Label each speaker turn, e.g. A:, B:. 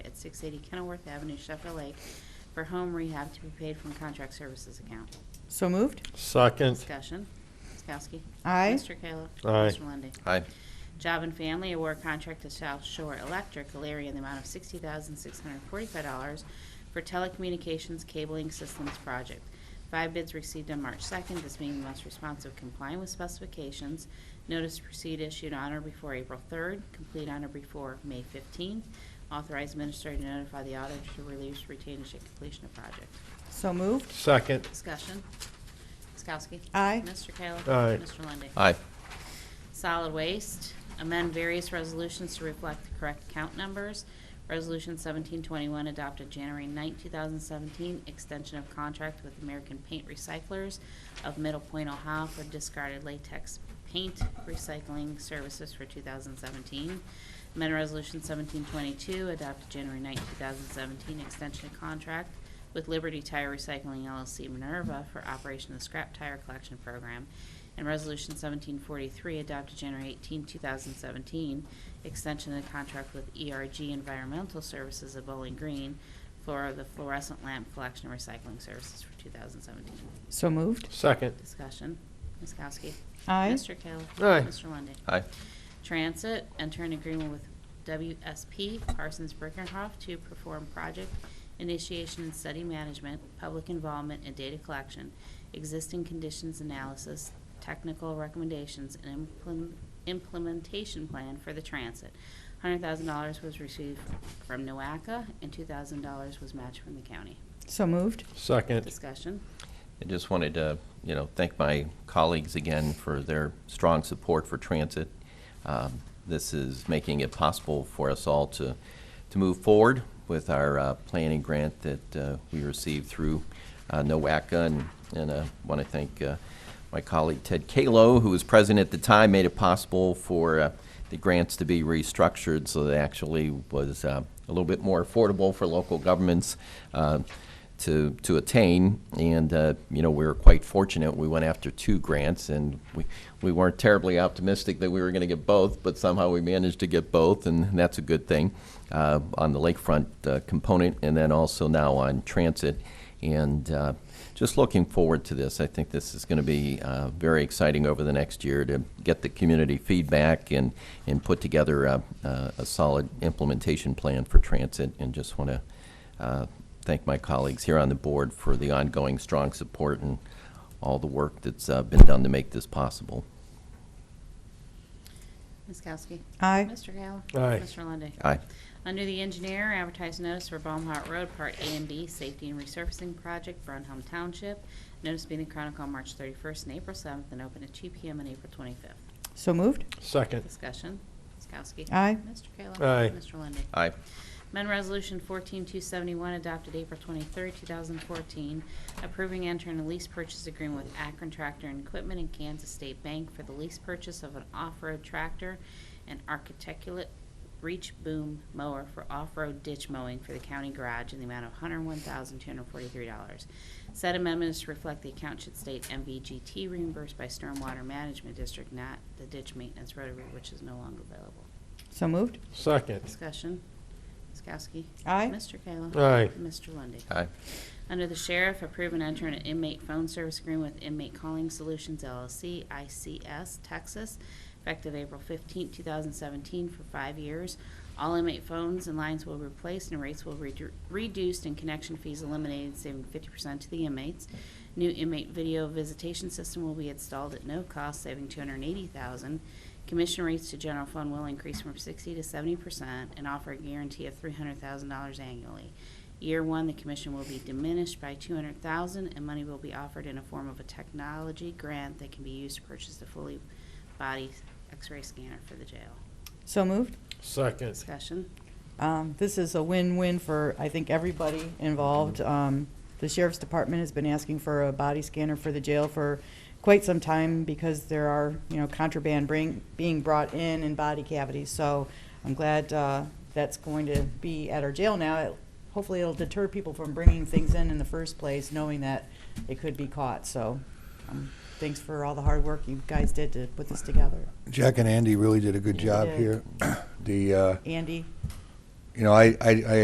A: 680 Kenilworth Avenue, Sheffield Lake, for home rehab to be paid from contract services account.
B: So moved.
C: Second.
A: Discussion. Ms. Kowski.
B: Aye.
A: Mr. Kayla.
C: Aye.
A: Mr. Lundey.
D: aye,
A: Job and Family award contract to South Shore Electric, Alaria, in the amount of $60,645 for telecommunications cabling systems project. Five bids received on March 2nd, this being the most responsive complying with specifications. Notice to proceed issued on or before April 3rd, complete on or before May 15th. Authorize minister to notify the auditor to release retainage at completion of project.
B: So moved.
C: Second.
A: Discussion. Ms. Kowski.
B: Aye.
A: Mr. Kayla.
C: Aye.
A: Mr. Lundey.
D: aye,
A: Solid Waste, amend various resolutions to reflect the correct count numbers. Resolution 1721 adopted January 9, 2017, extension of contract with American Paint Recyclers of Middle Point, Ohio for discarded latex paint recycling services for 2017. Amend Resolution 1722 adopted January 9, 2017, extension of contract with Liberty Tire Recycling LLC Minerva for operation of the scrap tire collection program, and Resolution 1743, adopted January 18, 2017, extension of the contract with ERG Environmental Services of Bowling Green for the fluorescent lamp collection and recycling services for 2017.
B: So moved.
C: Second.
A: Discussion. Ms. Kowski.
B: Aye.
A: Mr. Kayla.
C: Aye.
A: Mr. Lundey.
D: aye,
A: Transit, enter an agreement with WSP Parsons Brinckerhoff to perform project initiation and study management, public involvement and data collection, existing conditions analysis, technical recommendations, and implem- implementation plan for the transit. $100,000 was received from NOACA and $2,000 was matched from the county.
B: So moved.
C: Second.
A: Discussion.
D: I just wanted to, you know, thank my colleagues again for their strong support for transit. Um, This is making it possible for us all to, to move forward with our uh, planning grant that uh, we received through uh, NOACA. And- And I want to thank uh, my colleague Ted Kalo, who was president at the time, made it possible for uh, the grants to be restructured so that actually was uh, a little bit more affordable for local governments. uh, to, to attain. And, uh, you know, we were quite fortunate. We went after two grants and we, we weren't terribly optimistic that we were going to get both, but somehow we managed to get both, and that's a good thing uh, on the lakefront uh, component and then also now on transit. And uh, just looking forward to this. I think this is going to be uh, very exciting over the next year to get the community feedback and, and put together a, a a solid implementation plan for transit. And just want to uh, thank my colleagues here on the board for the ongoing strong support and all the work that's uh, been done to make this possible.
A: Ms. Kowski.
B: Aye.
A: Mr. Kayla.
C: Aye.
A: Mr. Lundey.
D: Aye.
A: Under the engineer, advertise notice for Baumhart Road, Part A and B, Safety and Resurfacing Project, Brunhelm Township. Notice being in the Chronicle on March 31st and April 7th, and open at 2 PM on April 25th.
B: So moved.
C: Second.
A: Discussion. Ms. Kowski.
B: Aye.
A: Mr. Kayla.
C: Aye.
A: Mr. Lundey.
D: Aye.
A: Amendment Resolution 14271 adopted April 23, 2014, approving enter and lease purchase agreement with Akron Tractor and Equipment and Kansas State Bank for the lease purchase of an off-road tractor and architeculate reach boom mower for off-road ditch mowing for the county garage in the amount of $101,243. Said amendments to reflect the account should state MVGT reimbursed by Stormwater Management District, not the ditch maintenance rotary, which is no longer available.
B: So moved.
C: Second.
A: Discussion. Ms. Kowski.
B: Aye.
A: Mr. Kayla.
C: Aye.
A: Mr. Lundy.
D: Aye.
A: Under the Sheriff, approve and enter an inmate phone service agreement with Inmate Calling Solutions LLC, ICS, Texas, effective April 15, 2017, for five years. All inmate phones and lines will be replaced and rates will be redu- reduced and connection fees eliminated, saving 50% to the inmates. New inmate video visitation system will be installed at no cost, saving 280000 Commission rates to general fund will increase from 60 to 70% and offer a guarantee of $300,000 annually. Year one, the commission will be diminished by two hundred thousand, and money will be offered in a form of a technology grant that can be used to purchase the fully body x-ray scanner for the jail.
B: So moved.
C: Second.
A: Discussion,
B: Um, This is a win-win for, I think, everybody involved. Um, The Sheriff's Department has been asking for a body scanner for the jail for quite some time because there are, you know, contraband bring- being brought in in body cavities. So I'm glad uh, that's going to be at our jail now. It- Hopefully, it'll deter people from bringing things in in the first place, knowing that it could be caught. So um, thanks for all the hard work you guys did to put this together.
E: Jack and Andy really did a good
B: Yeah,
E: job
B: they
E: here. The, uh,
B: Andy?
E: you know, I, I, I